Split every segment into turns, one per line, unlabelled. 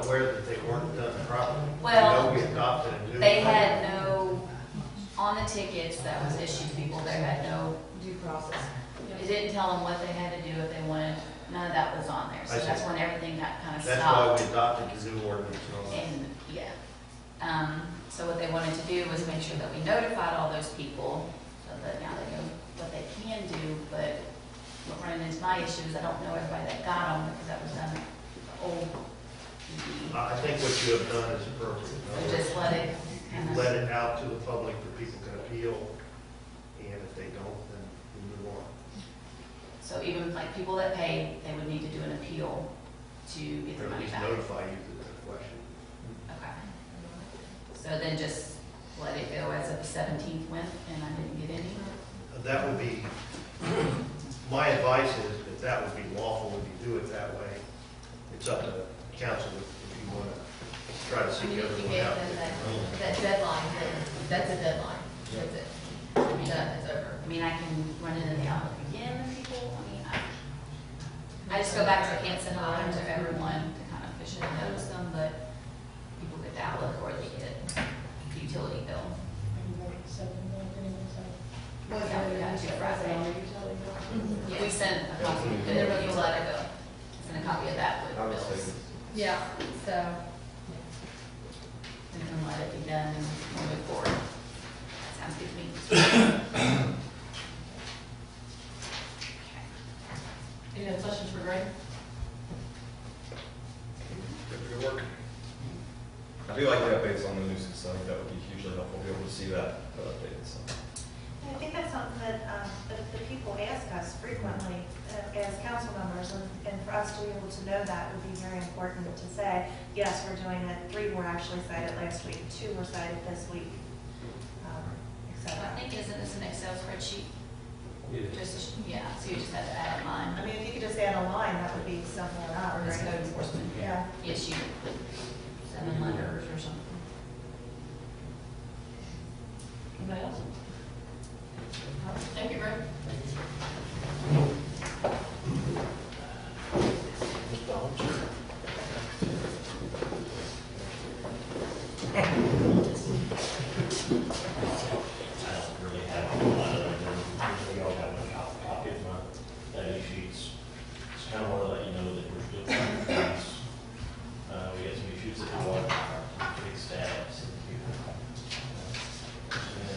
aware that they weren't done properly.
Well,
I know we adopted a new.
They had no, on the tickets that was issued to people, they had no,
due process.
it didn't tell them what they had to do if they wanted, none of that was on there. So
I see.
that's when everything got kind of
That's why
stopped.
we adopted the new ordinance and all that.
And, yeah. Um, so what they wanted to do was make sure that we notified all those people, so that now they know what they can do, but what running into my issue is I don't know everybody that got them, because that was done the old. DD.
I I think what you have done is appropriate. In other
We just
words,
let it
you-
kinda-
You let it out to the public that people can appeal, and if they don't, then we move on.
So even like people that pay, they would need to do an appeal to get
Or
their
at
money
least
back.
notify you that there's a question.
Okay. So then just let it go as of the seventeenth went and I didn't get any.
That would be, my advice is that that would be lawful if you do it that way. It's up to council if you want to try to
I
seek
mean, if you
everyone
gave
out.
them that, that deadline, then that's a deadline, that's it,
I
You're
mean,
done, it's over.
I mean, I can run into the outlook again with people. I mean, I, I just go back to Hanson Hives or everyone to kind of fish and notice them, but people get the outlook or they get the utility bill.
Wasn't
Yeah,
it
we got
just
you
a
Friday. Mm-hmm.
personal utility bill?
We sent a copy, and there was a letter bill, sent a copy of that with bills.
Yeah, so.
And then let it be done and we'll move forward. Sounds good to me.
Any other questions for Greg?
I do like the updates on the nuisance, so I think that would be hugely helpful, be able to see that uh, updated, so.
I think that's something that, um, that the people ask us frequently uh, as council members, and, and for us to be able to know that would be very important to say, yes, we're doing it, three were actually cited last week, two were cited this week, um, et
So
cetera.
I think isn't this an Excel spreadsheet? Just, yeah, so you just have to add it
I
on.
mean, if you could just add a line, that would be something enough,
Or this code
right?
enforcement
Yeah.
issue, seven letters or something.
Anybody else? Thank you, Greg.
I don't really have a lot of them, we all have a co- copy of my data sheets. Just kind of want to let you know that we're still trying to fix, uh, we got some issues that we want to fix that.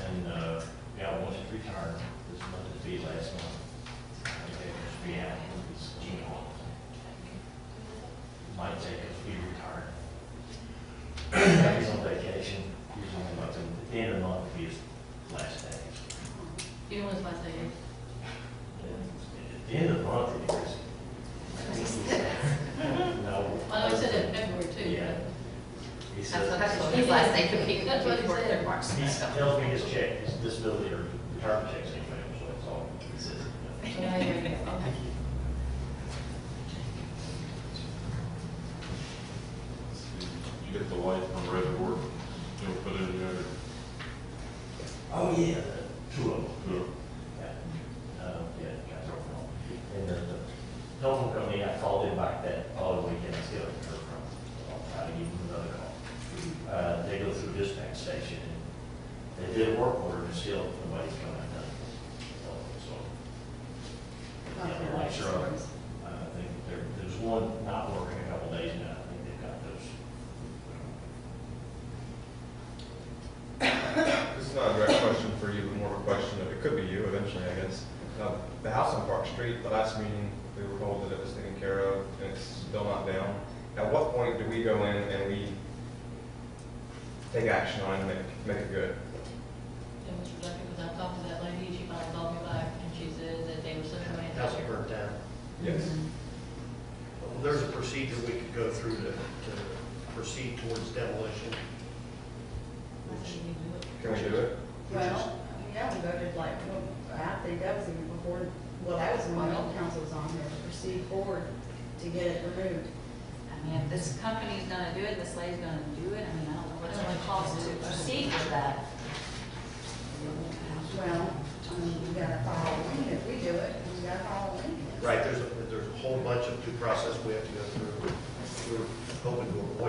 And, uh, we got one that returned this month, it'd be last month. Okay, just be out, it's Gmail. Might take us, we retired. He's on vacation, he's on month, and at the end of the month would be his last day.
Even with my thing.
And At the end of the month, it is. No.
I know I said it in February too.
Yeah. He
That's what
said,
I told his last day could be,
That's what
could
he
be worth
said.
their marks
he
and stuff.
tells me his check, his disability or retirement check's in February, so it's all, he says. you know.
Yeah, yeah, yeah, okay.
You get the light on red board, you'll put it in there.
Oh, yeah. Two of them.
Yeah.
Yeah, Uh, yeah, guys are wrong. And the, the telephone company, I called him back that following weekend, I still haven't heard from him. I'll try to give him another call. Uh, they go through dispatch station, and they did a work order, and still nobody's coming out. So, yeah, the lights are on. Uh, I think there, there's one not working a couple days now, I think they've got those. um,
This is not a direct question for you, but more of a question, that it could be you eventually, I guess. Uh, The house on Park Street, the last meeting, we were told that it was taken care of, and it's still not down. At what point do we go in and we take action on it and make, make it good?
Yeah, Mr. Duffy, because I talked to that lady, she finally called me back and she said that they were such a man.
House burnt down.
Yes.
Well, There's a procedure we could go through to, to proceed towards demolition.
I said, you do it.
Can we do it?
Well, yeah, we voted like, well, I think that was even before, well, that was when the old council was on there, to proceed forward to get it removed.
I mean, if this company's gonna do it, this lady's gonna do it, I mean, I don't know what it's gonna cost to proceed with that.
Well, I mean, we gotta follow a lien if we do it, we gotta follow a lien.
Right, there's, a- there's a whole bunch of due process we have to go through. We're hoping to avoid